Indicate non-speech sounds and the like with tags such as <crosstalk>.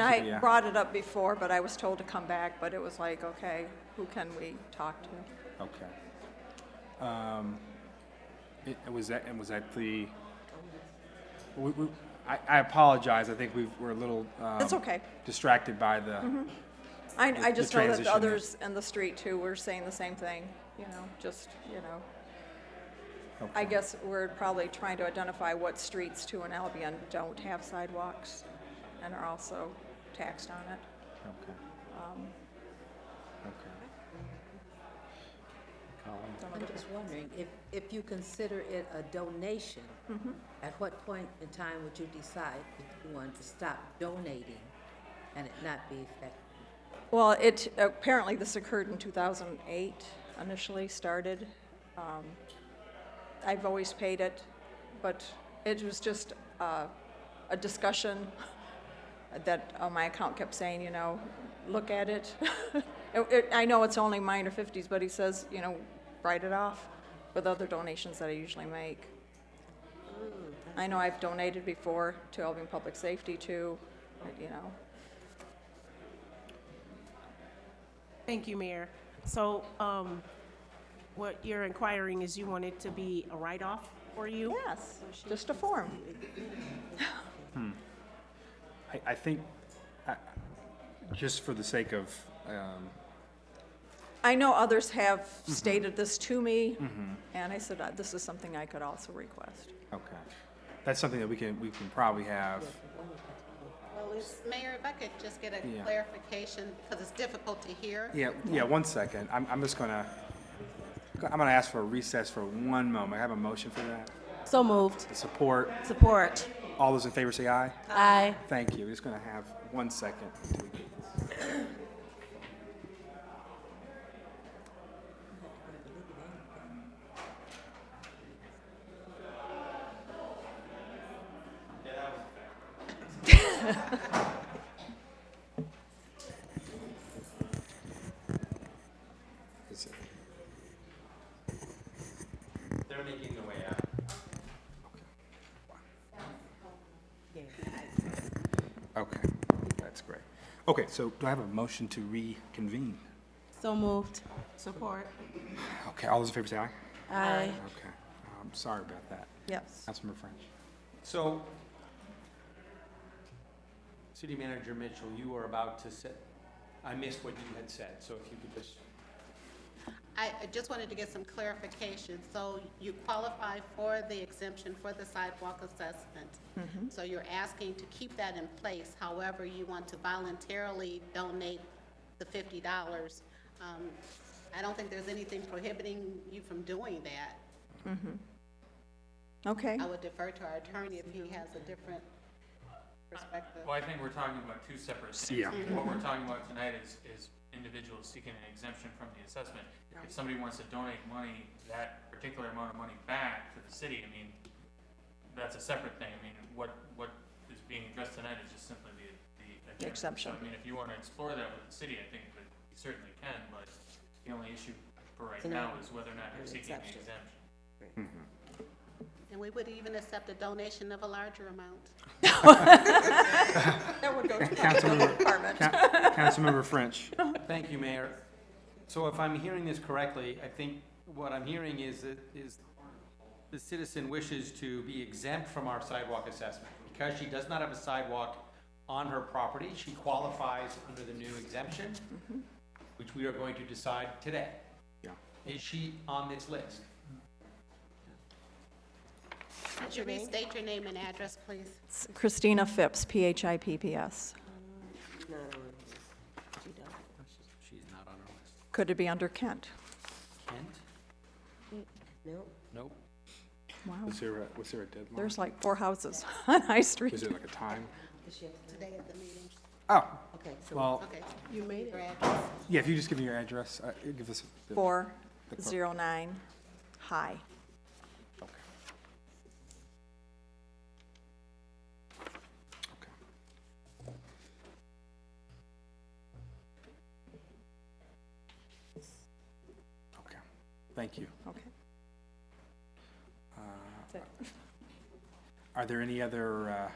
And you, I yeah. brought it up before, but I was told to come back, but it was like, okay, who can we talk to? Okay. Um, it- it Was that, and was that the, we- we- I I apologize, I think we were a little. um, It's okay. Distracted by the, I, I the just know that transition the there. others in the street too were saying the same thing, you know, just, you know. I guess we're probably trying to identify what streets too in Albion don't have sidewalks and are also taxed on it. okay. Okay. Colin? I'm just wondering, if, if you consider it a donation, at what point in time would you decide if you wanted to stop donating and it not be effective? Well, it, apparently this occurred in 2008, initially started. Um, I've always paid it, but it was just uh, a discussion that uh, my account kept saying, you know, look at it. <laughs> It- it- I know it's only minor 50s, but he says, you know, write it off with other donations that I usually make. I know I've donated before to Albion Public Safety too, you know. Thank you, Mayor. So, um, what you're inquiring is you want it to be a write-off for you? Yes, just a form. I, I think, I- just for the sake of, um, I know others have Mm-hmm. stated this to me, and I said, uh, this is something I could also request. okay. That's something that we can, we can probably have, Well, it's- Mayor, if I could just get a Yeah. clarification, because it's difficult to hear. yeah, yeah, one second. I'm, I'm just gonna, I'm gonna ask for a recess for one moment. I have a motion for that. So moved. Support. Support. All those in favor say aye. Aye. Thank you. We're just gonna have one second. until we get this. Is it- They're making their way out. Okay, that's great. Okay, so do I have a motion to reconvene? So moved. Support. Okay, all those in favor say aye. Aye. Okay, I'm sorry about that. Yes. Councilmember French. So, City Manager Mitchell, you were about to say, I missed what you had said, so if you could just, I I just wanted to get some clarification. So you qualify for the exemption for the sidewalk assessment. Mm-hmm. So you're asking to keep that in place, however, you want to voluntarily donate the fifty dollars. Um, I don't think there's anything prohibiting you from doing that. Okay, I would defer to our attorney if he has a different perspective. Well, I think we're talking about two separate things. Yeah. What we're talking about tonight is, is individuals seeking an exemption from the assessment. If somebody wants to donate money, that particular amount of money back to the city, I mean, that's a separate thing. I mean, what, what is being addressed tonight is just simply the, the. exemption. exemption. So, I mean, if you want to explore that with the city, I think that you certainly can, but the only issue for right now is whether or not you're seeking an exemption. And we would even accept a donation of a larger amount. that would go to the Councilmember, department. Ca- Councilmember French. thank you, Mayor. So if I'm hearing this correctly, I think what I'm hearing is that, is the citizen wishes to be exempt from our sidewalk assessment. Because she does not have a sidewalk on her property, she qualifies under the new exemption, which we are going to decide today. Yeah. Is she on this list? Could you restate your name and address, please? Christina Phipps, P-H-I-P-P-S. She's not on our list. Could it be under Kent? Kent? Nope. Nope. Wow, Was there a, was there a deadline? there's like four houses <laughs> on High Is Street. there like a time? Today at the meeting. Oh, Okay, so well, Okay. you made Your address. yeah, if you just give me your address, uh, give us. the- Four, The clerk. zero nine, high. Okay. Okay. Okay, thank you. Okay. Are there any other uh,